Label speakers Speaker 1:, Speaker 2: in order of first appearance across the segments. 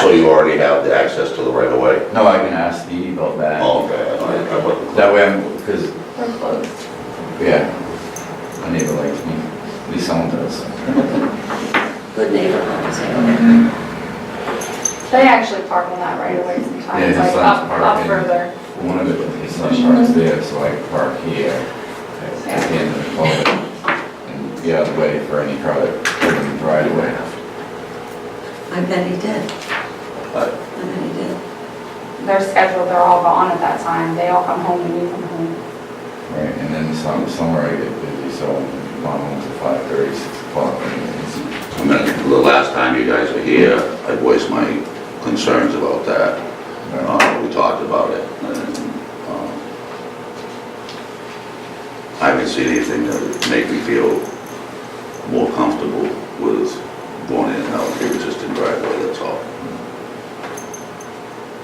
Speaker 1: So you already have the access to the right of way?
Speaker 2: No, I can ask Steve about that.
Speaker 1: Oh, Okay, I- I wasn't clear.
Speaker 2: That way I'm, because,
Speaker 3: We're closed.
Speaker 2: yeah, my neighbor likes me, at least someone does.
Speaker 3: Good neighborhood, so. They actually park on that right away
Speaker 2: Yeah,
Speaker 3: sometimes,
Speaker 2: his
Speaker 3: like
Speaker 2: son's
Speaker 3: up, up
Speaker 2: parking.
Speaker 3: further.
Speaker 2: One of the, his son parks there, so I park here at the end of the culvert and be out of the way for any car that comes right away.
Speaker 4: I bet he did.
Speaker 2: But-
Speaker 4: I bet he did.
Speaker 3: They're scheduled, they're all gone at that time. They all come home and we come home.
Speaker 2: Right, and then some, summer I get busy, so I'm home till five thirty, six o'clock. and it's-
Speaker 1: I mean, the last time you guys were here, I voiced my concerns about that. Uh, We talked about it. and, um, I haven't seen anything that would make me feel more comfortable with going in and out of the existing driveway, that's all.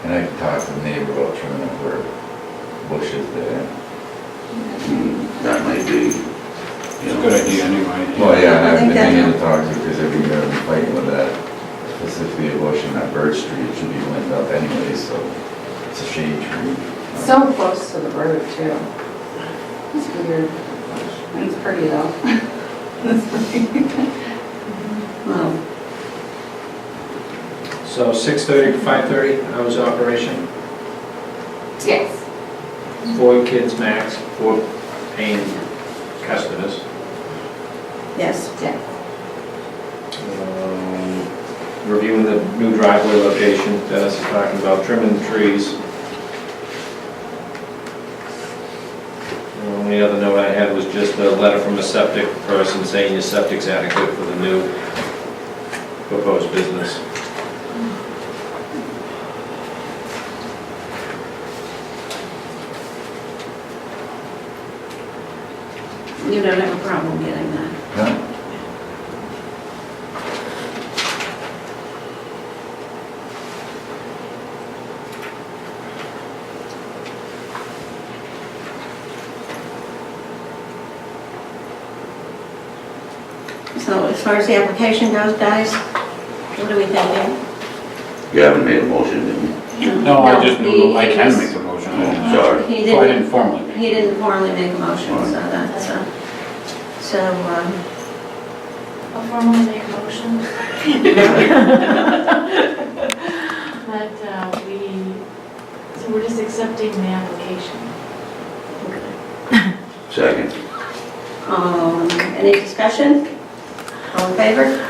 Speaker 2: And I can talk to the neighbor about trimming up her bushes there.
Speaker 1: Mm, That may be, you
Speaker 5: It's a
Speaker 1: know.
Speaker 5: good idea anyway.
Speaker 2: Well, yeah, and
Speaker 4: I
Speaker 2: I've
Speaker 4: think
Speaker 2: been
Speaker 4: that-
Speaker 2: meaning to talk to you, because every year I'm fighting with that, specifically a bush in that birch tree, it should be limbed up anyway, so it's a shade tree.
Speaker 3: So close to the road too. It's weird. It's pretty though.
Speaker 4: Well,
Speaker 6: So 6:30 to 5:30, hours of operation,
Speaker 3: Yes.
Speaker 6: four kids max, four paying customers.
Speaker 4: yes.
Speaker 3: Yes.
Speaker 6: Um, Reviewing the new driveway location, Dennis is talking about trimming the trees. The only other note I had was just a letter from a septic person saying your septic's adequate for the new proposed business.
Speaker 4: You don't have a problem getting that.
Speaker 2: Yeah.
Speaker 4: So as far as the application goes, guys, what are we thinking?
Speaker 1: You haven't made a motion, did you?
Speaker 5: No, I just
Speaker 4: No,
Speaker 5: knew,
Speaker 4: he-
Speaker 5: I
Speaker 4: he
Speaker 5: can
Speaker 4: was-
Speaker 5: make the motion.
Speaker 1: Oh,
Speaker 5: I
Speaker 1: Sorry.
Speaker 4: He
Speaker 5: didn't- Oh, I
Speaker 4: didn't,
Speaker 5: didn't formally. make
Speaker 4: he
Speaker 5: it.
Speaker 4: didn't formally make a motion, so that's, uh, so, um,
Speaker 7: I'll formally make a motion that uh, we, so we're just accepting the application.
Speaker 1: Second.
Speaker 4: um, any discussion? All in favor?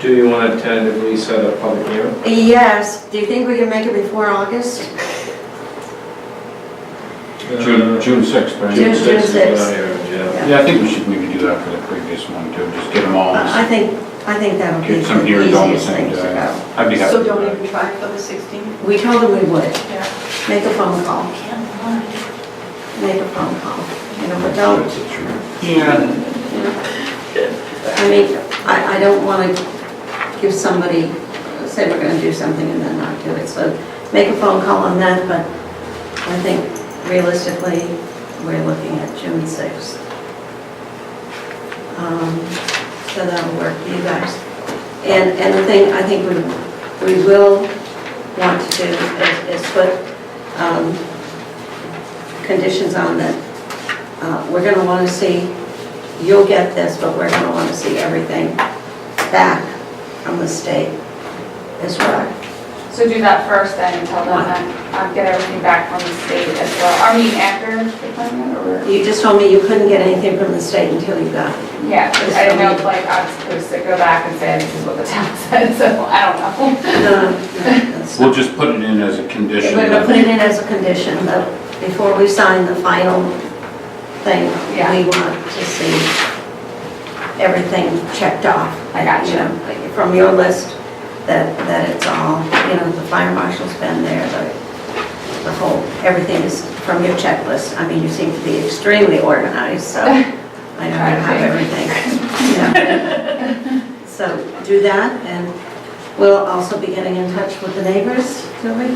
Speaker 6: Do you want to tentatively set a public hearing?
Speaker 4: Yes. Do you think we can make it before August?
Speaker 5: June, June sixth, right?
Speaker 4: June- June sixth.
Speaker 6: Yeah.
Speaker 5: Yeah, I think we should maybe do that for the previous one too, just get them all,
Speaker 4: I think, I think that would be
Speaker 5: get some
Speaker 4: the
Speaker 5: hearings on the
Speaker 4: easiest
Speaker 5: same
Speaker 4: thing to
Speaker 5: day.
Speaker 4: go.
Speaker 5: I'd be happy.
Speaker 8: So
Speaker 5: with
Speaker 8: don't
Speaker 5: that.
Speaker 8: even try for the 16th?
Speaker 4: We told him we would.
Speaker 8: Yeah.
Speaker 4: Make a phone call,
Speaker 7: Can't lie.
Speaker 4: make a phone call. You know, but don't,
Speaker 2: It's a tree.
Speaker 5: Yeah,
Speaker 4: I mean, I, I don't want to give somebody, say we're going to do something and then not do it. So make a phone call on that, but I think realistically, we're looking at June 6th. Um, So that'll work for you guys. And, and the thing I think we, we will want to do is is put um, conditions on that. Uh, We're going to want to see, you'll get this, but we're going to want to see everything back from the state as well.
Speaker 3: So do that first then and tell them that, um, get everything back from the state as well. I mean, after the appointment or?
Speaker 4: You just told me you couldn't get anything from the state until you got it.
Speaker 3: Yeah, I don't know, like, I'm supposed to go back and say, this is what the town said, so I don't know.
Speaker 4: No, no, that's
Speaker 5: we'll
Speaker 4: not.
Speaker 5: just put it in as a condition.
Speaker 4: We're gonna put it in as a condition, but before we sign the final thing,
Speaker 3: Yeah.
Speaker 4: we want to see everything checked off.
Speaker 3: I got you.
Speaker 4: know, like From your list, that, that it's all, you know, the fire marshal's been there, the, the whole, everything is from your checklist. I mean, you seem to be extremely organized, so I know you
Speaker 3: Try to
Speaker 4: have
Speaker 3: be.
Speaker 4: everything. Yeah. So do that, and we'll also be getting in touch with the neighbors, do we?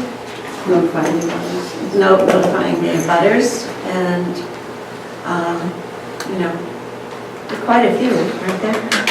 Speaker 4: Notifying the butters. No, notifying the butters, and, um, you know, quite a few, aren't there?